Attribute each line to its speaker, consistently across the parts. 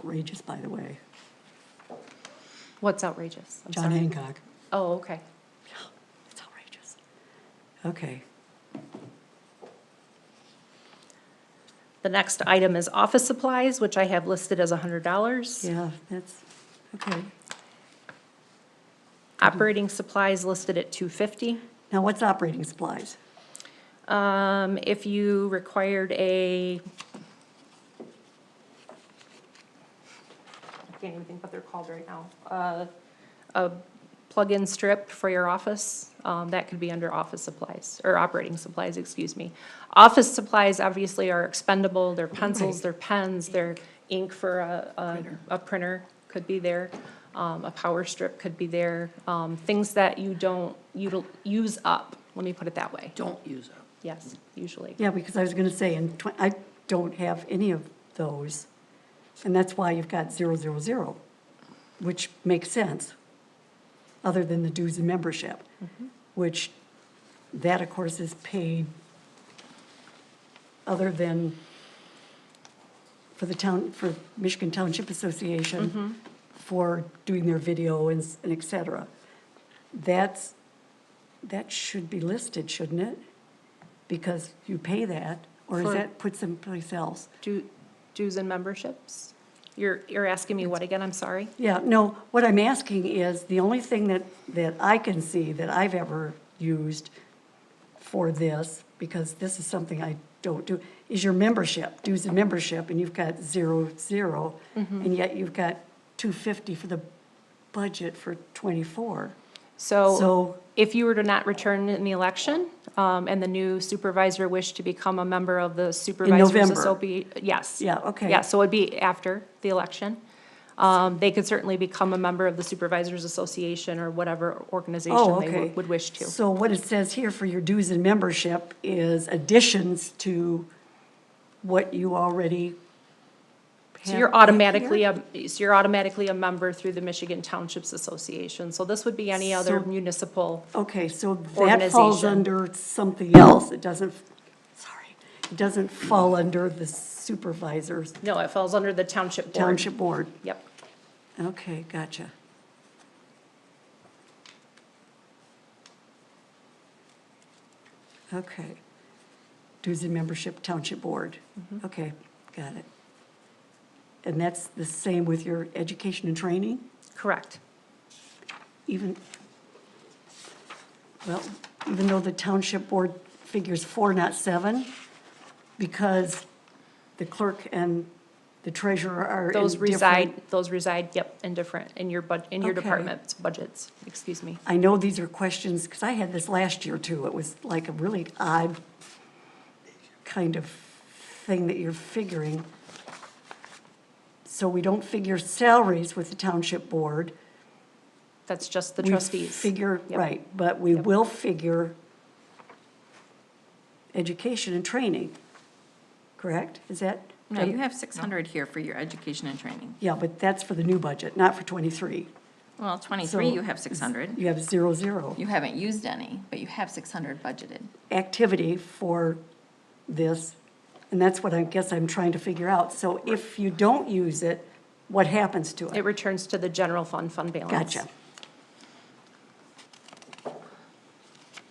Speaker 1: outrageous, by the way.
Speaker 2: What's outrageous? I'm
Speaker 1: John
Speaker 2: sorry.
Speaker 1: Hancock,
Speaker 2: Oh, okay.
Speaker 1: it's outrageous. Okay,
Speaker 2: The next item is office supplies, which I have listed as hundred dollars.
Speaker 1: yeah, that's, okay.
Speaker 2: Operating supplies listed at two fifty.
Speaker 1: Now, what's operating supplies?
Speaker 2: Um, if you required a. I can't even think what they're called right now. Uh, a plug-in strip for your office, um, that could be under office supplies, or operating supplies, excuse me. Office supplies obviously are expendable, they're pencils, they're pens, they're ink for a, a, a printer could be there. Um, a power strip could be there, um, things that you don't, util use up, let me put it that way.
Speaker 3: don't use up.
Speaker 2: Yes, usually.
Speaker 1: Yeah, because I was gonna say, in twen- I don't have any of those, and that's why you've got zero, zero, zero, which makes sense, other than the dues and membership, which, that, of course, is paid other than for the town, for Michigan Township Association, for doing their video and s- and et cetera. That's, that should be listed, shouldn't it? Because you pay that, or is
Speaker 2: For-
Speaker 1: that put someplace else?
Speaker 2: Du- Dues and memberships? You're, you're asking me what again? I'm sorry.
Speaker 1: Yeah, no, what I'm asking is, the only thing that, that I can see that I've ever used for this, because this is something I don't do, is your membership, dues and membership, and you've got zero, zero,
Speaker 2: Mm-hmm.
Speaker 1: and yet you've got two fifty for the budget for twenty-four. So-
Speaker 2: So if you were to not return in the election, um, and the new supervisor wished to become a member of the Supervisors
Speaker 1: November.
Speaker 2: Association. Yes.
Speaker 1: Yeah, okay.
Speaker 2: Yeah, so it'd be after the election. Um, they could certainly become a member of the Supervisors Association or whatever organization
Speaker 1: Oh,
Speaker 2: they
Speaker 1: okay.
Speaker 2: would- would wish to.
Speaker 1: So what it says here for your dues and membership is additions to what you already
Speaker 2: So
Speaker 1: have
Speaker 2: you're
Speaker 1: right here?
Speaker 2: automatically, a- so you're automatically a member through the Michigan Townships Association. So this would be any other
Speaker 1: So-
Speaker 2: municipal
Speaker 1: Okay, so that falls
Speaker 2: Organization.
Speaker 1: under something else. It doesn't, sorry, it doesn't fall under the supervisor's
Speaker 2: No, it falls under the township board.
Speaker 1: township board.
Speaker 2: Yep.
Speaker 1: Okay, gotcha. Okay. Dues and membership township board. Okay, got it. And that's the same with your education and training,
Speaker 2: Correct.
Speaker 1: even, well, even though the township board figures four, not seven, because the clerk and the treasurer are in
Speaker 2: Those
Speaker 1: different-
Speaker 2: reside, those reside, yep, in different, in your bud, in your
Speaker 1: Okay.
Speaker 2: department's budgets, excuse me.
Speaker 1: I know these are questions, because I had this last year too. It was like a really odd kind of thing that you're figuring. So we don't figure salaries with the township board.
Speaker 2: That's just the
Speaker 1: We
Speaker 2: trustees.
Speaker 1: Figure,
Speaker 2: Yep.
Speaker 1: right, but we will figure education and training, correct? Is that?
Speaker 3: No, you have six hundred here for your education and training.
Speaker 1: Yeah, but that's for the new budget, not for twenty-three.
Speaker 3: Well, twenty-three,
Speaker 1: So-
Speaker 3: you have six hundred.
Speaker 1: You have zero, zero.
Speaker 3: You haven't used any, but you have six hundred budgeted.
Speaker 1: activity for this, and that's what I guess I'm trying to figure out. So if you don't use it, what happens to
Speaker 2: It
Speaker 1: it?
Speaker 2: returns to the general fund, fund balance.
Speaker 1: Gotcha.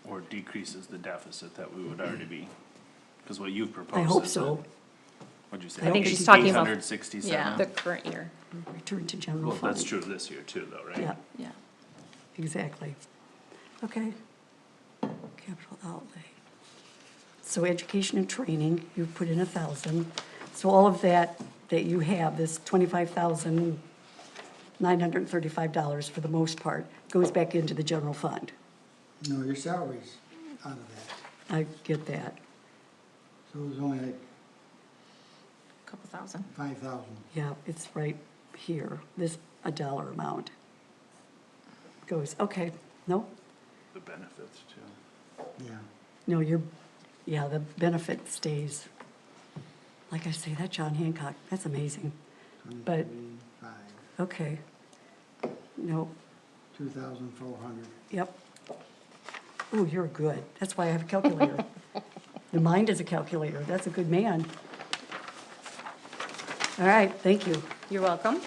Speaker 4: or decreases the deficit that we would already be? Because what you've proposed
Speaker 1: I
Speaker 4: is.
Speaker 1: hope
Speaker 4: that-
Speaker 1: so.
Speaker 4: What'd you say?
Speaker 1: I think she's
Speaker 2: talking about- The
Speaker 4: 867?
Speaker 2: current year.
Speaker 1: Return to general
Speaker 4: Well,
Speaker 1: fund.
Speaker 4: that's true of this year too, though, right?
Speaker 1: Yeah,
Speaker 3: Yeah.
Speaker 1: exactly. Okay. Capital outlay. So education and training, you put in a thousand. So all of that that you have, this twenty-five thousand nine hundred and thirty-five dollars for the most part, goes back into the general fund.
Speaker 5: No, your salary's out of that,
Speaker 1: I get that.
Speaker 5: so it was only like
Speaker 3: Couple thousand.
Speaker 5: five thousand.
Speaker 1: Yeah, it's right here, this, a dollar amount. Goes, okay, no,
Speaker 4: The benefits too.
Speaker 5: Yeah,
Speaker 1: no, you're, yeah, the benefit stays. Like I say, that John Hancock, that's amazing. But,
Speaker 5: five,
Speaker 1: okay. No,
Speaker 5: two thousand four hundred.
Speaker 1: yep. Oh, you're good, that's why I have a calculator. The mind is a calculator, that's a good man.
Speaker 6: All right, thank you.
Speaker 1: You're welcome.